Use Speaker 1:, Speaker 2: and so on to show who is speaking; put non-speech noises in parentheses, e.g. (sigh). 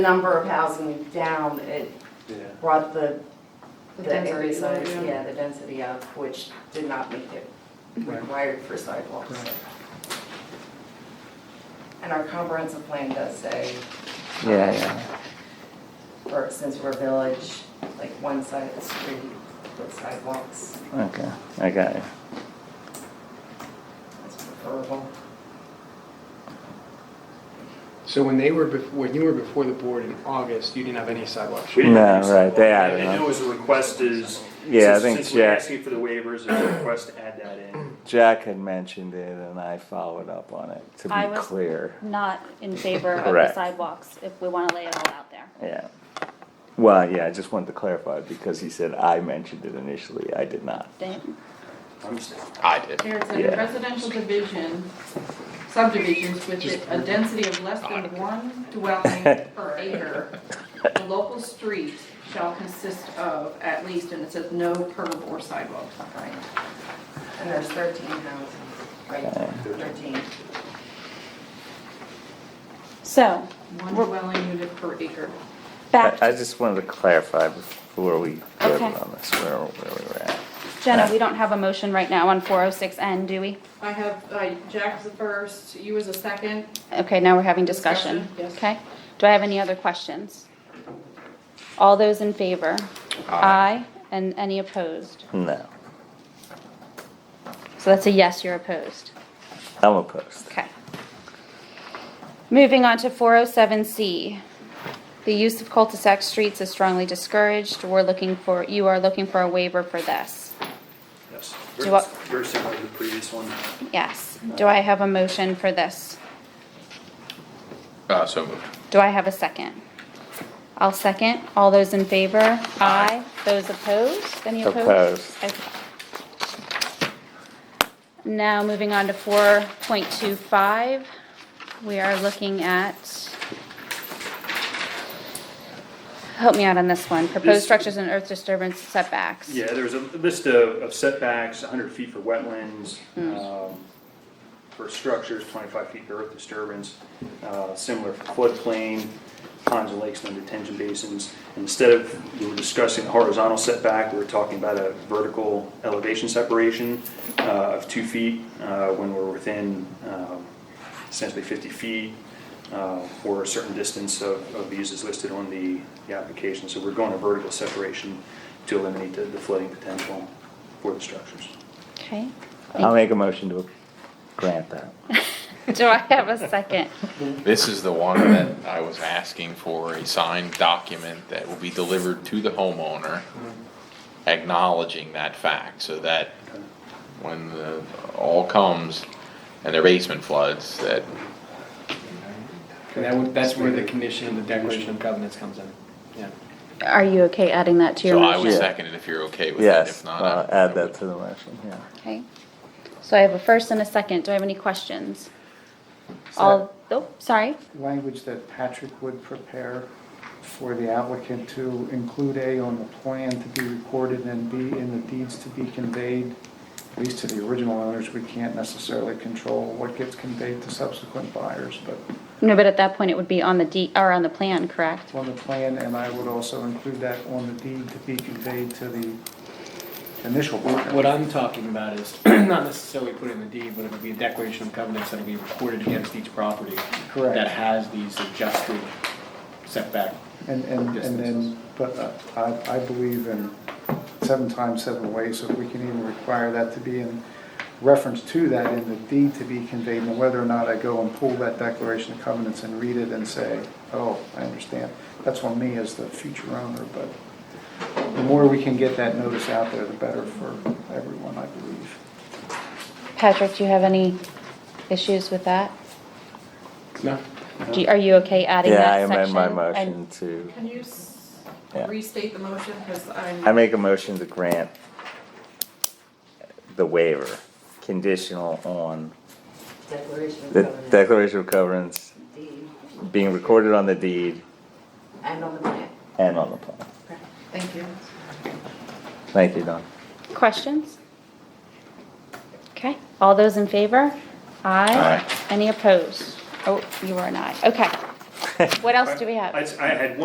Speaker 1: number of housing down, it
Speaker 2: Yeah.
Speaker 1: brought the,
Speaker 3: The
Speaker 1: the
Speaker 3: density
Speaker 1: area
Speaker 3: low,
Speaker 1: size,
Speaker 3: yeah.
Speaker 1: yeah, the density up, which did not meet it required for sidewalks.
Speaker 2: Right.
Speaker 1: And our comprehensive plan does say,
Speaker 4: Yeah, yeah.
Speaker 1: or since we're a village, like one side of the street with sidewalks
Speaker 4: Okay, I got it.
Speaker 1: is preferable.
Speaker 2: So when they were, bef- when you were before the board in August, you didn't have any sidewalks?
Speaker 5: We didn't
Speaker 4: No,
Speaker 5: have any
Speaker 4: right, they
Speaker 5: sidewalk.
Speaker 4: added
Speaker 5: And
Speaker 4: them.
Speaker 5: it was a request is.
Speaker 4: Yeah, I
Speaker 5: since-
Speaker 4: think
Speaker 5: Since we're
Speaker 4: Jack-
Speaker 5: asking for the waivers, it's a request to add that in.
Speaker 4: Jack had mentioned it and I followed up on it, to
Speaker 6: I
Speaker 4: be
Speaker 6: was-
Speaker 4: clear.
Speaker 6: not in favor of the
Speaker 4: Correct.
Speaker 6: sidewalks, if we wanna lay it all out there.
Speaker 4: Yeah. Well, yeah, I just wanted to clarify because he said I mentioned it initially. I did not.
Speaker 6: Then-
Speaker 5: I'm just-
Speaker 7: I did.
Speaker 3: There's
Speaker 4: Yeah.
Speaker 3: a residential division, subdivisions with a density of less than one dwelling
Speaker 4: (laughs)
Speaker 3: per acre. The local street shall consist of at least, and it says no curb or sidewalk.
Speaker 1: Right. And there's 13 houses, right, 13.
Speaker 6: So,
Speaker 3: One dwelling unit per acre.
Speaker 4: I,
Speaker 6: back,
Speaker 4: I
Speaker 6: to-
Speaker 4: just wanted to clarify before we voted
Speaker 6: Okay.
Speaker 4: on this, where, where we were at.
Speaker 6: Jenna, we don't have a motion right now on four oh six N, do we?
Speaker 3: I have, uh, Jack's the first, you was the second,
Speaker 6: Okay, now we're having discussion,
Speaker 3: Discussion, yes.
Speaker 6: okay? Do I have any other questions? All those in favor? Aye,
Speaker 7: Aye.
Speaker 6: and any opposed?
Speaker 4: No,
Speaker 6: So that's a yes, you're opposed,
Speaker 4: I'm opposed.
Speaker 6: okay. Moving on to four oh seven C. The use of cul-de-sac streets is strongly discouraged, we're looking for, you are looking for a waiver for this.
Speaker 5: Yes,
Speaker 6: Do you want-
Speaker 5: very similar to the previous one.
Speaker 6: Yes. Do I have a motion for this?
Speaker 7: Uh, so moved.
Speaker 6: Do I have a second? I'll second. All those in favor? Aye. Those opposed? Any opposed?
Speaker 4: Opposed.
Speaker 6: Okay. Now, moving on to four point two five, we are looking at, help me out on this one, proposed
Speaker 5: This-
Speaker 6: structures and earth disturbance setbacks.
Speaker 5: Yeah, there's a list of of setbacks, hundred feet for wetlands, um, for structures, twenty-five feet for earth disturbance, uh, similar for floodplain, ponds and lakes and detention basins. Instead of, we were discussing horizontal setback, we were talking about a vertical elevation separation uh, of two feet uh, when we're within um, essentially fifty feet uh, or a certain distance of of these is listed on the the application. So we're going to vertical separation to eliminate the the flooding potential for the structures.
Speaker 6: Okay.
Speaker 4: I'll make a motion to grant that.
Speaker 6: Do I have a second?
Speaker 7: This is the one that I was asking for, a signed document that will be delivered to the homeowner acknowledging that fact, so that when the, all comes and their basement floods, that,
Speaker 2: And that would, that's where the condition, the declaration of covenants comes in. Yeah.
Speaker 6: Are you okay adding that to your
Speaker 7: so I
Speaker 6: motion?
Speaker 7: would second it if you're okay with it,
Speaker 4: Yes, Uh,
Speaker 7: if not.
Speaker 4: I'll
Speaker 7: I-
Speaker 4: add that to the motion, yeah.
Speaker 6: Okay, so I have a first and a second, do I have any questions? All, oh, sorry,
Speaker 8: language that Patrick would prepare for the applicant to include A on the plan to be recorded and B in the deeds to be conveyed, at least to the original owners, we can't necessarily control what gets conveyed to subsequent buyers, but
Speaker 6: no, but at that point it would be on the D, or on the plan, correct?
Speaker 8: it's on the plan, and I would also include that on the deed to be conveyed to the initial buyer.
Speaker 2: What I'm talking about is (clears throat) not necessarily put in the deed, but it would be a declaration of covenants that'll be recorded against each property.
Speaker 8: Correct.
Speaker 2: That has these adjusted setback.
Speaker 8: And, and, and
Speaker 2: Distances.
Speaker 8: then, but uh, I, I believe in seven times, seven ways, so if we can even require that to be in reference to that in the deed to be conveyed, and whether or not I go and pull that declaration of covenants and read it and say, oh, I understand, that's on me as the future owner, but the more we can get that notice out there, the better for everyone, I believe.
Speaker 6: Patrick, do you have any issues with that?
Speaker 2: No?
Speaker 6: Do, you- are you okay adding
Speaker 4: Yeah, I
Speaker 6: that section?
Speaker 4: amend my
Speaker 6: And-
Speaker 4: motion to,
Speaker 3: Can you s-
Speaker 4: Yeah.
Speaker 3: restate the motion, because I'm.
Speaker 4: I make a motion to grant the waiver, conditional on
Speaker 1: Declaration of
Speaker 4: the
Speaker 1: covenants.
Speaker 4: declaration of covenants
Speaker 1: deed,
Speaker 4: being recorded on the deed
Speaker 1: And on the plan.
Speaker 4: and on the plan.
Speaker 3: Thank you.
Speaker 4: Thank you, Don.
Speaker 6: Questions? Okay, all those in favor? Aye.
Speaker 7: Aye.
Speaker 6: Any opposed? Oh, you are an aye, okay.
Speaker 9: What else do we have?
Speaker 4: (laughs)
Speaker 8: I I had one